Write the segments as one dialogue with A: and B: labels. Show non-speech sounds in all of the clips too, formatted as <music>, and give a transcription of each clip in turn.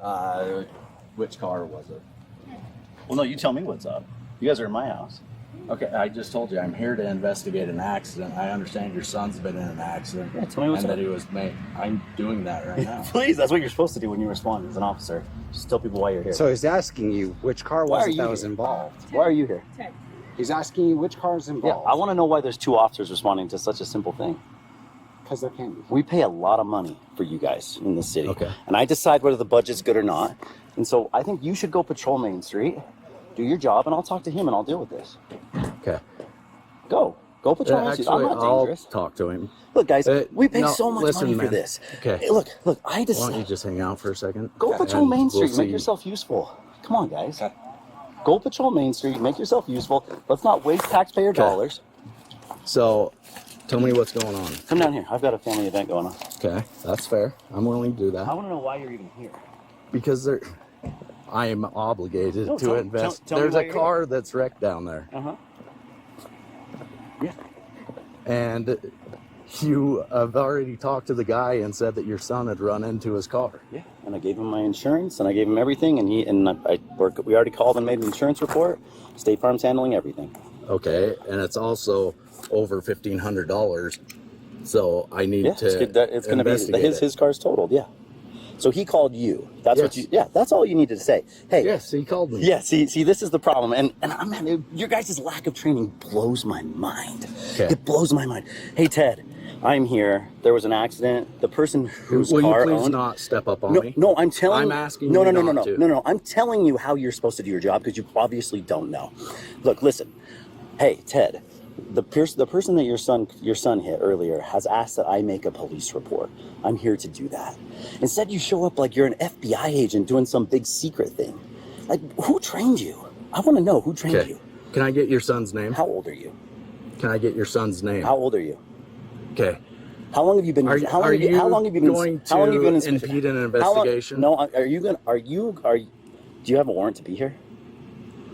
A: Uh, which car was it?
B: Well, no, you tell me what's up. You guys are in my house.
A: Okay, I just told you I'm here to investigate an accident. I understand your son's been in an accident.
B: Yeah, tell me what's
A: and
B: up.
A: that he was made. I'm doing that right now.
B: Please, that's what you're supposed to do when you respond as an officer. Just tell people why you're here.
C: So he's asking you which car
B: Why
C: was
B: are
C: it
B: you
C: that was
B: here?
C: involved.
B: why are you here?
D: Ted,
C: He's asking you which car is
B: Yeah, I
C: involved.
B: want to know why there's two officers responding to such a simple thing.
C: Because there can't be.
B: We pay a lot of money for you guys in the city.
A: Okay.
B: And I decide whether the budget's good or not. And so I think you should go patrol Main Street, do your job, and I'll talk to him and I'll deal with this.
A: <laughs> Okay.
B: Go. Go patrol Main Street. I'm not dangerous.
A: talk to him.
B: Look, guys,
A: Uh,
B: we pay
A: no,
B: so much
A: listen,
B: money for
A: man.
B: this.
A: Okay.
B: Hey, look, look, I
A: Why
B: decide.
A: don't you just hang out for a second?
B: Go patrol
A: And
B: Main
A: we'll
B: Street. make
A: see.
B: yourself useful. Come on, guys. Go patrol Main Street. Make yourself useful. Let's not waste taxpayer dollars.
A: So, tell me what's going on.
B: Come down here. I've got a family event going on.
A: Okay, that's fair. I'm willing to do
B: I
A: that
B: want to know why you're even here.
A: because there, I am obligated
B: No,
A: to
B: tell-
A: invest.
B: tell- tell me
A: There's
B: why
A: a
B: you're
A: car that's wrecked down there,
B: Uh huh.
A: and you have already talked to the guy and said that your son had run into his car.
B: Yeah. And I gave him my insurance, and I gave him everything, and he and I, I work. We already called and made an insurance report. State Farm's handling everything.
A: Okay, and it's also over fifteen hundred dollars. So I need
B: Yeah.
A: to
B: It's, good that, it's gonna be
A: investigate
B: his
A: it.
B: his car's totaled. Yeah. So he called you. That's what
A: Yes.
B: you. Yeah. That's all you needed to say. Hey.
A: Yes, he called me.
B: Yeah, see, see, this is the problem, and and I'm man, your guys' lack of training blows my mind.
A: Okay.
B: It blows my mind. Hey, Ted, I'm here. There was an accident. The person whose
A: Will
B: car
A: you please
B: owned.
A: not step up on
B: no,
A: me?
B: no, I'm telling.
A: I'm asking
B: No,
A: you
B: no, no, no, no,
A: not to.
B: no, no. I'm telling you how you're supposed to do your job because you obviously don't know. Look, listen. Hey, Ted, the pers- the person that your son your son hit earlier has asked that I make a police report. I'm here to do that. Instead, you show up like you're an FBI agent doing some big secret thing. Like, who trained you? I want to know who trained
A: Okay.
B: you.
A: Can I get your son's name?
B: How old are you?
A: Can I get your son's name?
B: How old are you?
A: Okay.
B: How long have you been?
A: Are,
B: how long
A: are
B: have
A: you,
B: you, how long have you been?
A: going
B: how long have you been
A: to impede an
B: How long-
A: investigation?
B: no, are you going? to Are you? Are you- do you have a warrant to be here?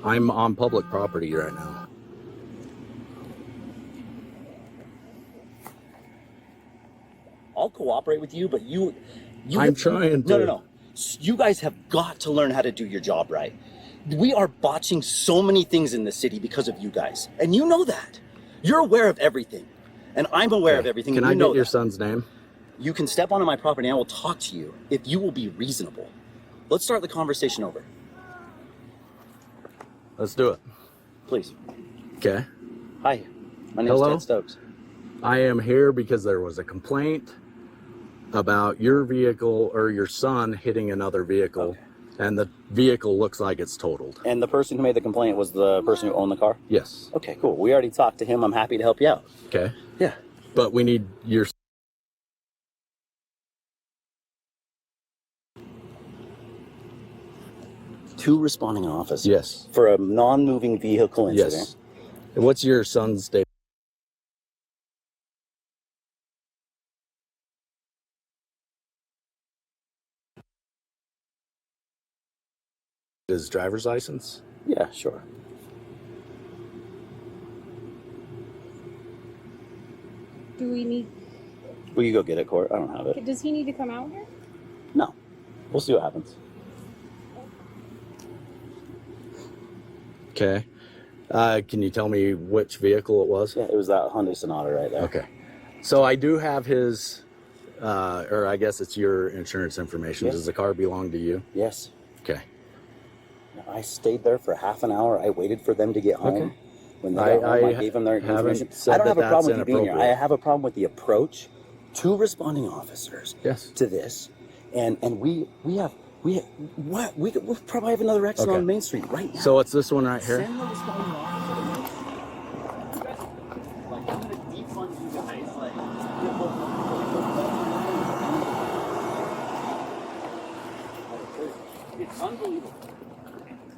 A: I'm on public property right now.
B: I'll cooperate with you, but you, you
A: I'm trying
B: No, no,
A: to.
B: no. S- You guys have got to learn how to do your job right. We are botching so many things in this city because of you guys, and you know that. You're aware of everything, and I'm aware of everything.
A: Can
B: and you
A: I
B: know
A: get your
B: that.
A: son's name?
B: You can step onto my property, and I will talk to you if you will be reasonable. Let's start the conversation over,
A: Let's do it.
B: please.
A: Okay.
B: Hi, my name's
A: Hello?
B: Ted Stokes.
A: I am here because there was a complaint about your vehicle or your son hitting another vehicle, and the vehicle looks like it's totaled.
B: And the person who made the complaint was the person who owned the car.
A: Yes.
B: Okay, cool. We already talked to him. I'm happy to help you out.
A: Okay.
B: Yeah.
A: But we need your.
B: Two responding officers.
A: Yes.
B: For a non-moving vehicle incident.
A: Yes. What's your son's date? His driver's license?
B: Yeah, sure.
D: do we need?
B: Will you go get it, Court? I don't have it.
D: Does he need to come out here?
B: No. We'll see what happens.
A: Okay. Uh, can you tell me which vehicle it was?
B: Yeah, it was that Hyundai Sonata right there.
A: Okay. So I do have his, uh, or I guess it's your insurance information.
B: Yeah.
A: Does the car belong to you?
B: Yes.
A: Okay.
B: I stayed there for half an hour. I waited for them to get home.
A: Okay.
B: When they
A: I-
B: got home, I,
A: I
B: gave them their
A: haven't
B: information.
A: said
B: I don't
A: that
B: have a problem
A: that's
B: with you being here. I
A: inappropriate.
B: have a problem with the approach. Two responding officers.
A: Yes.
B: to this, and and we we have we what we we probably have another accident
A: Okay.
B: on Main Street right now.
A: So it's this one right here.
B: Send the responding officer.